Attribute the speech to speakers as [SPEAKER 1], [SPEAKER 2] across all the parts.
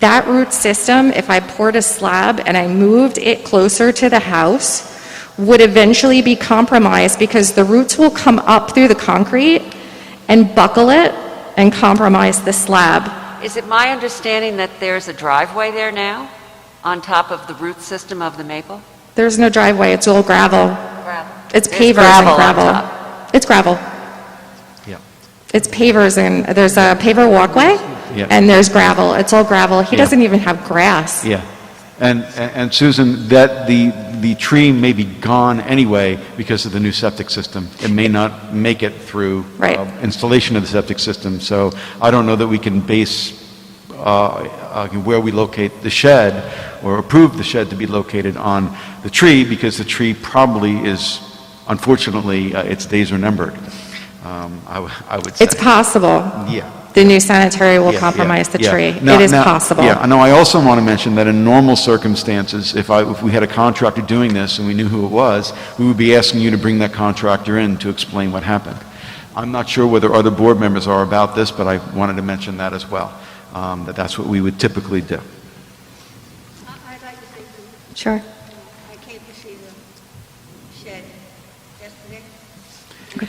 [SPEAKER 1] That root system, if I poured a slab and I moved it closer to the house, would eventually be compromised because the roots will come up through the concrete and buckle it and compromise the slab.
[SPEAKER 2] Is it my understanding that there's a driveway there now, on top of the root system of the maple?
[SPEAKER 1] There's no driveway, it's all gravel.
[SPEAKER 2] Gravel.
[SPEAKER 1] It's
[SPEAKER 2] There's
[SPEAKER 1] pavers and
[SPEAKER 2] gravel on
[SPEAKER 1] gravel.
[SPEAKER 2] top.
[SPEAKER 1] It's gravel.
[SPEAKER 3] Yep.
[SPEAKER 1] It's pavers and, there's a paver walkway
[SPEAKER 3] Yeah.
[SPEAKER 1] and there's gravel. It's all gravel. He
[SPEAKER 3] Yeah.
[SPEAKER 1] doesn't even have grass.
[SPEAKER 3] Yeah. And, and Susan, that the, the tree may be gone anyway because of the new septic system. It may not make it through
[SPEAKER 1] Right.
[SPEAKER 3] uh, installation of the septic system. So I don't know that we can base uh, uh, where we locate the shed or approve the shed to be located on the tree because the tree probably is, unfortunately, uh, its days are numbered. Um, I w- I would say.
[SPEAKER 1] It's possible.
[SPEAKER 3] Yeah.
[SPEAKER 1] The new sanitary will
[SPEAKER 3] Yeah,
[SPEAKER 1] compromise
[SPEAKER 3] yeah,
[SPEAKER 1] the
[SPEAKER 3] yeah.
[SPEAKER 1] tree.
[SPEAKER 3] Now-
[SPEAKER 1] It is
[SPEAKER 3] now-
[SPEAKER 1] possible.
[SPEAKER 3] Yeah, I know, I also want to mention that in normal circumstances, if I, if we had a contractor doing this and we knew who it was, we would be asking you to bring that contractor in to explain what happened. I'm not sure whether other board members are about this, but I wanted to mention that as well, um, that that's what we would typically do.
[SPEAKER 4] I'd like to say that
[SPEAKER 1] Sure.
[SPEAKER 4] I came to see the shed yesterday. Uh,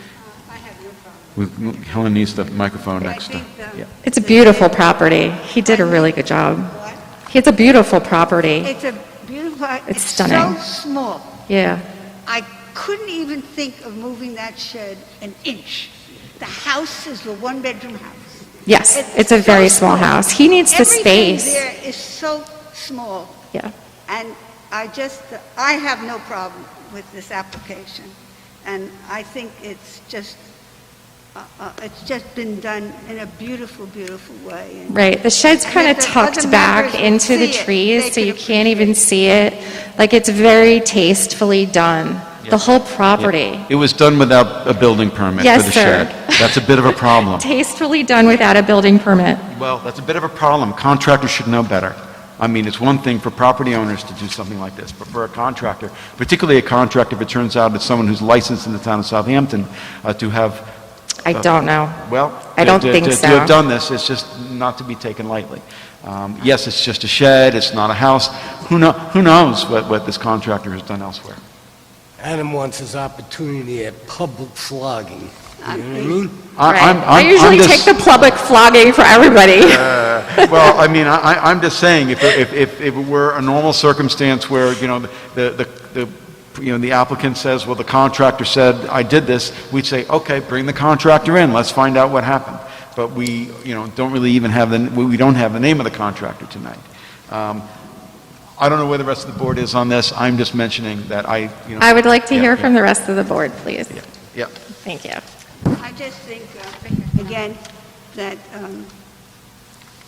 [SPEAKER 4] I have no problem.
[SPEAKER 3] We- Helen needs the microphone
[SPEAKER 4] I
[SPEAKER 3] next to.
[SPEAKER 4] think um, the-
[SPEAKER 3] yeah.
[SPEAKER 1] It's a beautiful property. He did a really good job.
[SPEAKER 4] What?
[SPEAKER 1] It's a beautiful property.
[SPEAKER 4] It's a beautiful, it's so
[SPEAKER 1] stunning.
[SPEAKER 4] small.
[SPEAKER 1] Yeah.
[SPEAKER 4] I couldn't even think of moving that shed an inch. The house is a one-bedroom house.
[SPEAKER 1] Yes, it's a very
[SPEAKER 4] so
[SPEAKER 1] small house. He needs the
[SPEAKER 4] Everything
[SPEAKER 1] space.
[SPEAKER 4] there is so small.
[SPEAKER 1] Yeah.
[SPEAKER 4] And I just, I have no problem with this application. And I think it's just, uh, uh, it's just been done in a beautiful, beautiful way. And
[SPEAKER 1] Right. The shed's
[SPEAKER 4] And
[SPEAKER 1] kind
[SPEAKER 4] if
[SPEAKER 1] of
[SPEAKER 4] the
[SPEAKER 1] tucked
[SPEAKER 4] other
[SPEAKER 1] back
[SPEAKER 4] members
[SPEAKER 1] into the
[SPEAKER 4] see it, they
[SPEAKER 1] trees, so
[SPEAKER 4] could
[SPEAKER 1] you can't even see it. Like, it's very tastefully done, the whole property.
[SPEAKER 3] It was done without a building permit for
[SPEAKER 1] Yes,
[SPEAKER 3] the
[SPEAKER 1] sir.
[SPEAKER 3] shed. That's a bit of a problem.
[SPEAKER 1] Tastefully done without a building permit.
[SPEAKER 3] Well, that's a bit of a problem. Contractors should know better. I mean, it's one thing for property owners to do something like this, but for a contractor, particularly a contractor if it turns out it's someone who's licensed in the town of Southampton, uh, to have,
[SPEAKER 1] I
[SPEAKER 3] Uh,
[SPEAKER 1] don't know.
[SPEAKER 3] well...
[SPEAKER 1] I don't
[SPEAKER 3] to- to-
[SPEAKER 1] think
[SPEAKER 3] To have
[SPEAKER 1] so.
[SPEAKER 3] done this, it's just not to be taken lightly. Um, Yes, it's just a shed, it's not a house. Who know, who knows what, what this contractor has done elsewhere?
[SPEAKER 5] Adam wants his opportunity at public flogging. You know what I mean?
[SPEAKER 3] I-
[SPEAKER 1] Right.
[SPEAKER 3] I'm-
[SPEAKER 1] I
[SPEAKER 3] I'm- I'm
[SPEAKER 1] usually
[SPEAKER 3] just-
[SPEAKER 1] take the public flogging for everybody.
[SPEAKER 3] Well, I mean, I, I- I'm just saying, if, if, if if it were a normal circumstance where, you know, the, the, the you know, the applicant says, well, the contractor said, I did this, we'd say, okay, bring the contractor in, let's find out what happened. But we, you know, don't really even have the, we we don't have the name of the contractor tonight. Um, I don't know where the rest of the board is on this, I'm just mentioning that I, you know.
[SPEAKER 1] I would like to
[SPEAKER 3] Yeah,
[SPEAKER 1] hear
[SPEAKER 3] yeah.
[SPEAKER 1] from the rest of the board, please.
[SPEAKER 3] Yeah.
[SPEAKER 1] Thank you.
[SPEAKER 4] I just think, uh, again, that um,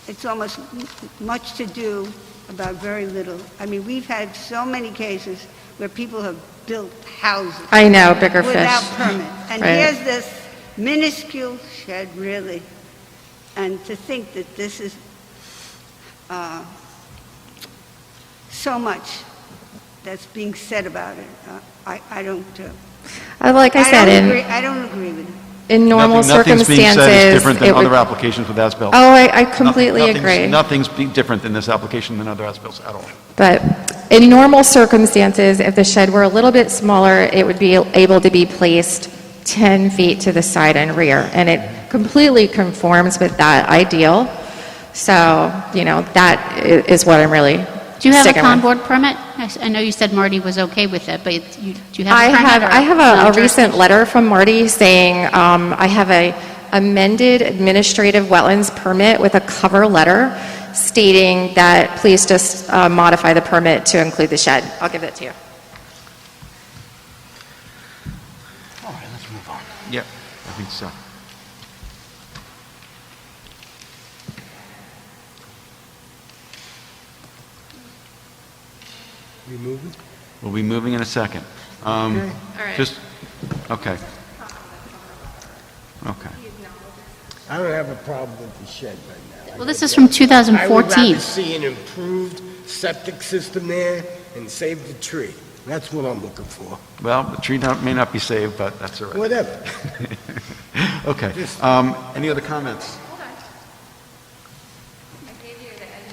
[SPEAKER 4] it's almost m- much to do about very little. I mean, we've had so many cases where people have built houses
[SPEAKER 1] I know, bigger
[SPEAKER 4] without
[SPEAKER 1] fish.
[SPEAKER 4] permit. And
[SPEAKER 1] Right.
[SPEAKER 4] here's this minuscule shed, really. And to think that this is uh, so much that's being said about it, Uh, I I don't, uh,
[SPEAKER 1] Uh, Like I
[SPEAKER 4] I
[SPEAKER 1] said,
[SPEAKER 4] don't agree,
[SPEAKER 1] in,
[SPEAKER 4] I don't agree with it.
[SPEAKER 1] in normal
[SPEAKER 3] Nothing- Nothing's being said is
[SPEAKER 1] circumstances,
[SPEAKER 3] different
[SPEAKER 1] it
[SPEAKER 3] than other
[SPEAKER 1] would...
[SPEAKER 3] applications with as-built.
[SPEAKER 1] Oh, I I completely
[SPEAKER 3] Nothing- nothing's-
[SPEAKER 1] agree.
[SPEAKER 3] Nothing's be- different in this application than other as-bills at all.
[SPEAKER 1] But in normal circumstances, if the shed were a little bit smaller, it would be able to be placed 10 feet to the side and rear, and it completely conforms with that ideal. So, you know, that i- is what I'm really
[SPEAKER 6] Do you have a
[SPEAKER 1] sticking with.
[SPEAKER 6] con board permit? I s- I know you said Marty was okay with it, but it's- you- do you have
[SPEAKER 1] I
[SPEAKER 6] a permit?
[SPEAKER 1] have,
[SPEAKER 6] or
[SPEAKER 1] I have a- a recent
[SPEAKER 6] non-jurisdiction?
[SPEAKER 1] letter from Marty saying, um, I have a amended administrative wetlands permit with a cover letter stating that please just uh, modify the permit to include the shed. I'll give that to you.
[SPEAKER 5] All right, let's move on.
[SPEAKER 3] Yeah, I think so.
[SPEAKER 5] We moving?
[SPEAKER 3] We'll be moving in a second. Um, Just, okay. Okay.
[SPEAKER 5] I don't have a problem with the shed right now.
[SPEAKER 6] Well, this is from
[SPEAKER 5] I would rather
[SPEAKER 6] 2014.
[SPEAKER 5] see an improved septic system there and save the tree. That's what I'm looking for.
[SPEAKER 3] Well, the tree not- may not be saved, but that's all right.
[SPEAKER 5] Whatever.
[SPEAKER 3] Okay. Um, Any other comments?